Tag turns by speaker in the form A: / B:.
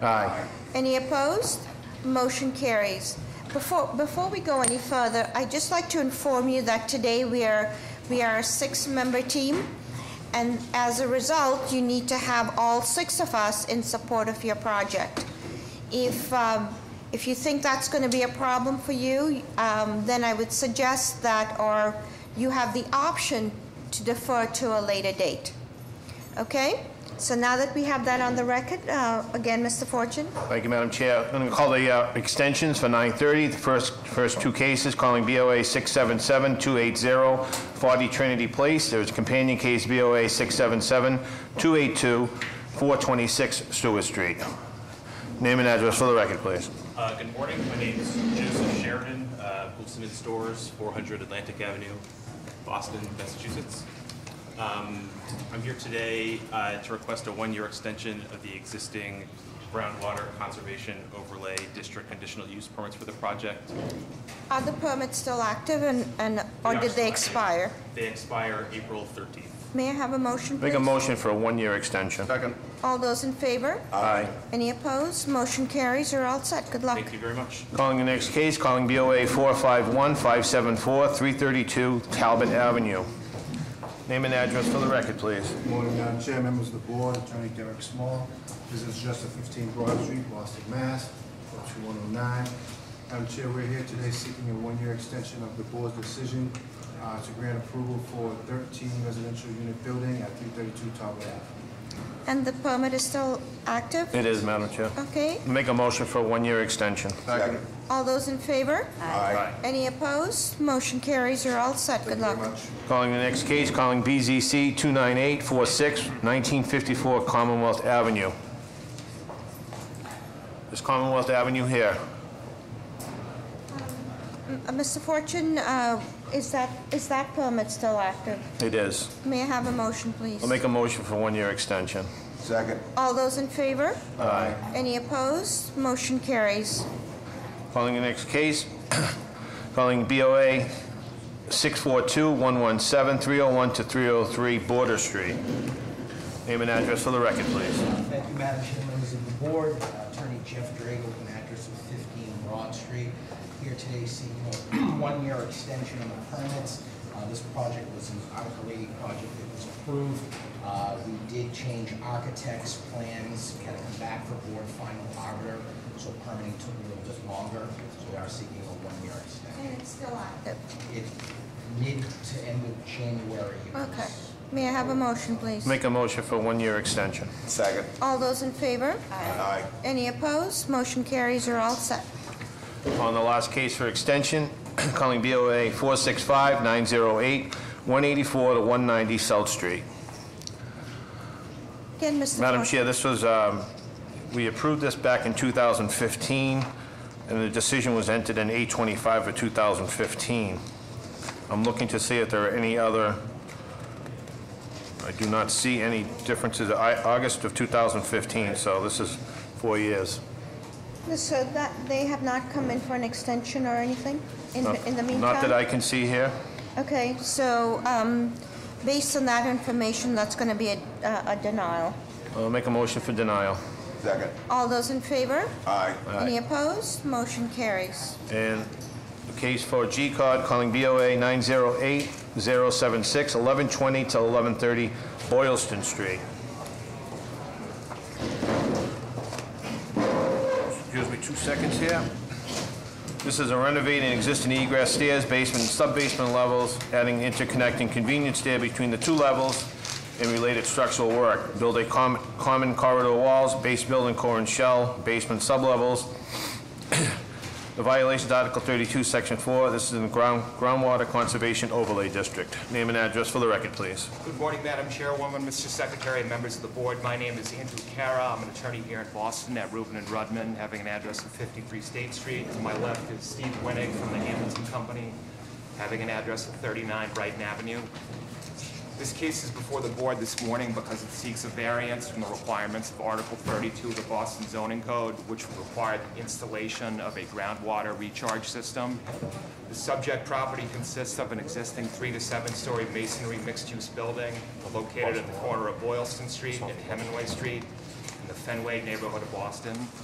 A: Aye.
B: Any opposed? Motion carries. Before, before we go any further, I'd just like to inform you that today we are, we are a six-member team, and as a result, you need to have all six of us in support of your project. If, um, if you think that's going to be a problem for you, um, then I would suggest that, or you have the option to defer to a later date. Okay? So now that we have that on the record, uh, again, Mr. Fortune?
A: Thank you, Madam Chair. I'm going to call the uh, extensions for 9:30. The first, first two cases, calling BOA 677-280, 40 Trinity Place. There's companion case BOA 677-282, 426 Stewart Street. Name and address for the record, please.
C: Uh, Good morning. My name is Joseph Sheridan, uh, Wolfson and Stores, 400 Atlantic Avenue, Boston, Massachusetts. Um, I'm here today uh, to request a one-year extension of the existing groundwater conservation overlay district conditional use permits for the project.
B: Are the permits still active and, Oh, and or did they expire?
C: They expire April 13th.
B: May I have a motion, please?
A: Make a motion for a one-year extension. Second.
B: All those in favor?
A: Aye.
B: Any opposed? Motion carries. You're all set. Good luck.
C: Thank you very much.
A: Calling the next case, calling BOA 451-574-332 Talbot Avenue. Name and address for the record, please.
D: Good Morning, Madam Chair, members of the board, Attorney Derek Small. This is just a 15 Broad Street, Boston, Mass. 02109. Madam Chair, we're here today seeking a one-year extension of the board's decision uh, to grant approval for 13 residential unit building at 332 Talbot Ave.
B: And the permit is still active?
A: It is, Madam Chair.
B: Okay.
A: Make a motion for a one-year extension.
D: Second.
B: All those in favor?
A: Aye.
B: Any opposed? Motion carries. You're all set. Good
D: Very
B: luck.
D: much.
A: Calling the next case, calling BZC 29846, 1954 Commonwealth Avenue. Is Commonwealth Avenue here?
B: Uh, Mr. Fortune, uh, is that, is that permit still active?
A: It is.
B: May I have a motion, please?
A: I'll make a motion for one-year extension.
D: Second.
B: All those in favor?
A: Aye.
B: Any opposed? Motion carries.
A: Calling the next case, calling BOA 642-117-301 to 303 Border Street. Name and address for the record, please.
E: Thank you, Madam Chair, members of the board. Attorney Jeff Drago with an address of 15 Broad Street. Here today seeking a one-year extension on the permits. Uh, This project was an Article 80 project that was approved. Uh, We did change architects' plans, had to come back for board final arbiter, so permitting took a little bit longer, so we are seeking a one-year extension.
B: it's still active.
E: It's mid to end of January. It was-
B: Okay. May I have a motion, please?
A: Make a motion for a one-year extension.
D: Second.
B: All those in favor?
D: Aye.
B: Any opposed? Motion carries. You're all set.
A: On the last case for extension, calling BOA 465-908-184 to 190 South Street.
B: Again, Mr.
A: Madam
B: Fortune.
A: Chair, this was, um, we approved this back in 2015, and the decision was entered in 825 of 2015. I'm looking to see if there are any other, I do not see any differences, I- August of 2015, so this is four years.
B: So that, they have not come in for an extension or anything in
A: Not-
B: in the meantime?
A: Not that I can see here.
B: Okay, so um, based on that information, that's going to be a a denial.
A: I'll make a motion for denial.
D: Second.
B: All those in favor?
D: Aye.
B: Any opposed? Motion carries.
A: And the case for G-Cod, calling BOA 908-076, 1120 to 1130 Boylston Street. Excuse me two seconds here. This is a renovating existing egress stairs, basement, and sub-basement levels, adding interconnecting convenience stair between the two levels and related structural work. Build a com- common corridor walls, base building core and shell, basement sublevels, the violation is Article 32, Section 4. This is in the ground- groundwater conservation overlay district. Name and address for the record, please.
F: Good morning, Madam Chairwoman, Mr. Secretary, and members of the board. My name is Andrew Kara. I'm an attorney here in Boston at Rubin and Rudman, having an address of 53 State Street. To my left is Steve Winnick from the Hamilton Company, having an address of 39 Brighton Avenue. This case is before the board this morning because it seeks a variance from the requirements of Article 32 of the Boston zoning code, which would require the installation of a groundwater recharge system. The subject property consists of an existing three to seven-story masonry mixed-use building located at the corner of Boylston Street and Hemingway Street. And the Fenway neighborhood of Boston.